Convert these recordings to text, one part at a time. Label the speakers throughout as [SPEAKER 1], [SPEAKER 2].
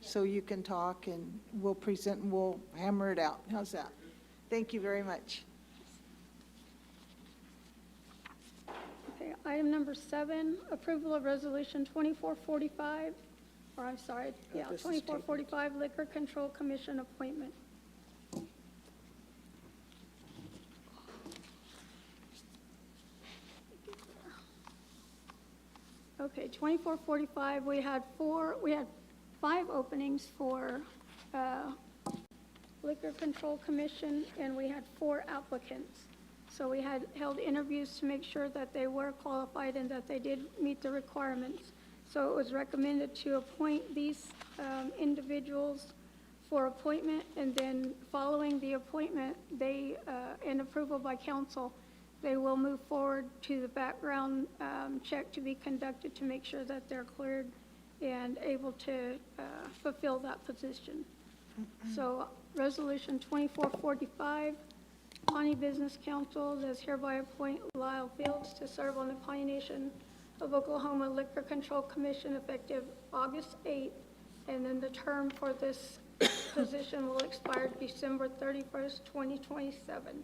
[SPEAKER 1] so you can talk, and we'll present, and we'll hammer it out. How's that? Thank you very much.
[SPEAKER 2] Okay, item number seven, approval of resolution 2445, or I'm sorry, yeah,
[SPEAKER 3] Uh, this is
[SPEAKER 2] 2445 Liquor Control Commission appointment. Okay, 2445, we had four, we had five openings for uh, Liquor Control Commission, and we had four applicants. So we had held interviews to make sure that they were qualified and that they did meet the requirements. So it was recommended to appoint these um, individuals for appointment, and then following the appointment, they, uh, and approval by council, they will move forward to the background um, check to be conducted to make sure that they're cleared and able to uh, fulfill that position. So, Resolution 2445, Pawnee Business Council does hereby appoint Lyle Fields to serve on the Pawnee Nation of Oklahoma Liquor Control Commission effective August 8th, and then the term for this position will expire December 31st, 2027.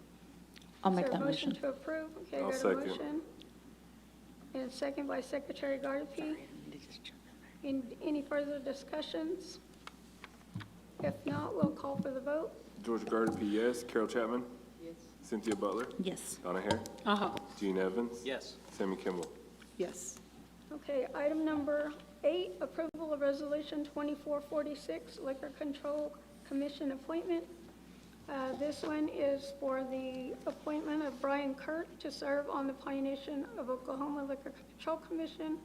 [SPEAKER 4] I'll make
[SPEAKER 2] Is there
[SPEAKER 4] that
[SPEAKER 2] a
[SPEAKER 4] motion.
[SPEAKER 2] to approve? Okay,
[SPEAKER 5] I'll
[SPEAKER 2] there's a
[SPEAKER 5] second.
[SPEAKER 2] motion. And second by Secretary Gardapi. In- Any further discussions? If not, we'll call for the vote.
[SPEAKER 5] Georgia Gardner, yes. Carol Chapman? Yes. Cynthia Butler?
[SPEAKER 4] Yes.
[SPEAKER 5] Donna Hare?
[SPEAKER 3] Uh-huh.
[SPEAKER 5] Gene Evans?
[SPEAKER 6] Yes.
[SPEAKER 5] Sammy Kimball?
[SPEAKER 3] Yes.
[SPEAKER 2] Okay, item number eight, approval of resolution 2446, Liquor Control Commission appointment. Uh, This one is for the appointment of Brian Kurt to serve on the Pawnee Nation of Oklahoma Liquor Control Commission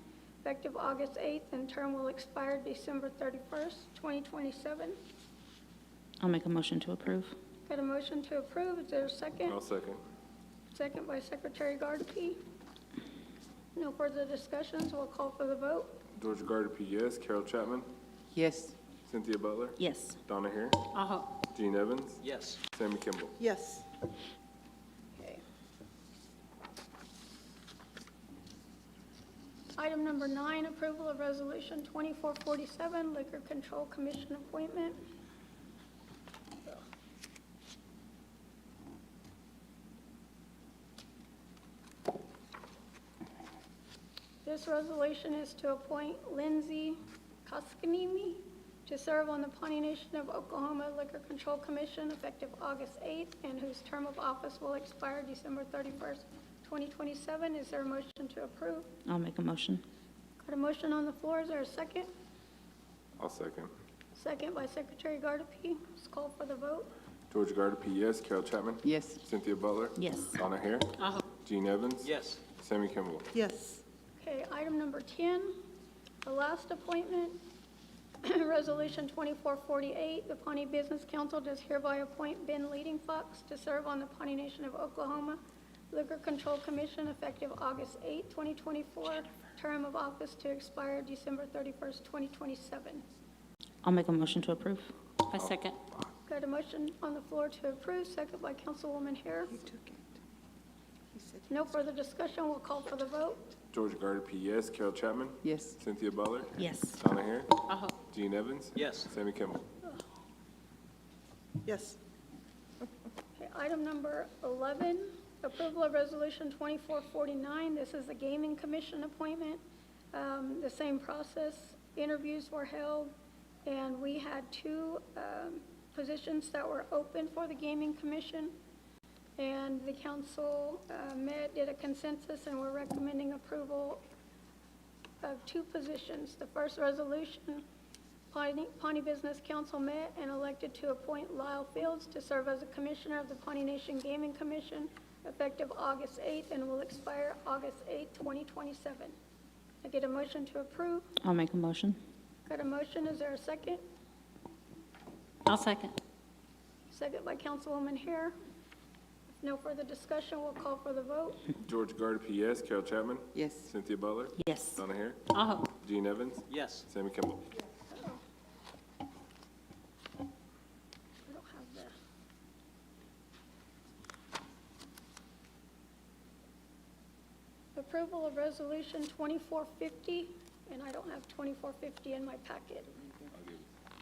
[SPEAKER 2] effective August 8th, and term will expire December 31st, 2027.
[SPEAKER 4] I'll make a motion to approve.
[SPEAKER 2] Got a motion to approve, is there a second?
[SPEAKER 5] I'll second.
[SPEAKER 2] Second by Secretary Gardapi. No further discussions, we'll call for the vote.
[SPEAKER 5] Georgia Gardner, yes. Carol Chapman?
[SPEAKER 3] Yes.
[SPEAKER 5] Cynthia Butler?
[SPEAKER 4] Yes.
[SPEAKER 5] Donna Hare?
[SPEAKER 3] Uh-huh.
[SPEAKER 5] Gene Evans?
[SPEAKER 6] Yes.
[SPEAKER 5] Sammy Kimball?
[SPEAKER 3] Yes.
[SPEAKER 2] Item number nine, approval of resolution 2447, Liquor Control Commission appointment. This resolution is to appoint Lindsay Koskinimi to serve on the Pawnee Nation of Oklahoma Liquor Control Commission effective August 8th, and whose term of office will expire December 31st, 2027. Is there a motion to approve?
[SPEAKER 4] I'll make a motion.
[SPEAKER 2] Got a motion on the floor, is there a second?
[SPEAKER 5] I'll second.
[SPEAKER 2] Second by Secretary Gardapi, let's call for the vote.
[SPEAKER 5] Georgia Gardner, yes. Carol Chapman?
[SPEAKER 3] Yes.
[SPEAKER 5] Cynthia Butler?
[SPEAKER 4] Yes.
[SPEAKER 5] Donna Hare?
[SPEAKER 3] Uh-huh.
[SPEAKER 5] Gene Evans?
[SPEAKER 6] Yes.
[SPEAKER 5] Sammy Kimball?
[SPEAKER 3] Yes.
[SPEAKER 2] Okay, item number 10, the last appointment, Resolution 2448, the Pawnee Business Council does hereby appoint Ben Leading Fox to serve on the Pawnee Nation of Oklahoma Liquor Control Commission effective August 8, 2024, term of office to expire December 31st, 2027.
[SPEAKER 4] I'll make a motion to approve.
[SPEAKER 3] I second.
[SPEAKER 2] Got a motion on the floor to approve, second by Councilwoman Hare.
[SPEAKER 3] You took it. He said
[SPEAKER 2] No further discussion, we'll call for the vote.
[SPEAKER 5] Georgia Gardner, yes. Carol Chapman?
[SPEAKER 3] Yes.
[SPEAKER 5] Cynthia Butler?
[SPEAKER 4] Yes.
[SPEAKER 5] Donna Hare?
[SPEAKER 3] Uh-huh.
[SPEAKER 5] Gene Evans?
[SPEAKER 6] Yes.
[SPEAKER 5] Sammy Kimball?
[SPEAKER 3] Yes.
[SPEAKER 2] Okay, Item number 11, approval of resolution 2449. This is the gaming commission appointment. Um, The same process, interviews were held, and we had two um, positions that were open for the gaming commission. And the council uh, met, did a consensus, and we're recommending approval of two positions. The first resolution, Pawnee Pawnee Business Council met and elected to appoint Lyle Fields to serve as a commissioner of the Pawnee Nation Gaming Commission effective August 8th and will expire August 8th, 2027. I get a motion to approve.
[SPEAKER 4] I'll make a motion.
[SPEAKER 2] Got a motion, is there a second?
[SPEAKER 4] I'll second.
[SPEAKER 2] Second by Councilwoman Hare. If No further discussion, we'll call for the vote.
[SPEAKER 5] Georgia Gardner, yes. Carol Chapman?
[SPEAKER 3] Yes.
[SPEAKER 5] Cynthia Butler?
[SPEAKER 4] Yes.
[SPEAKER 5] Donna Hare?
[SPEAKER 3] Uh-huh.
[SPEAKER 5] Gene Evans?
[SPEAKER 6] Yes.
[SPEAKER 5] Sammy Kimball?
[SPEAKER 2] I don't have the. Approval of Resolution 2450, and I don't have 2450 in my packet.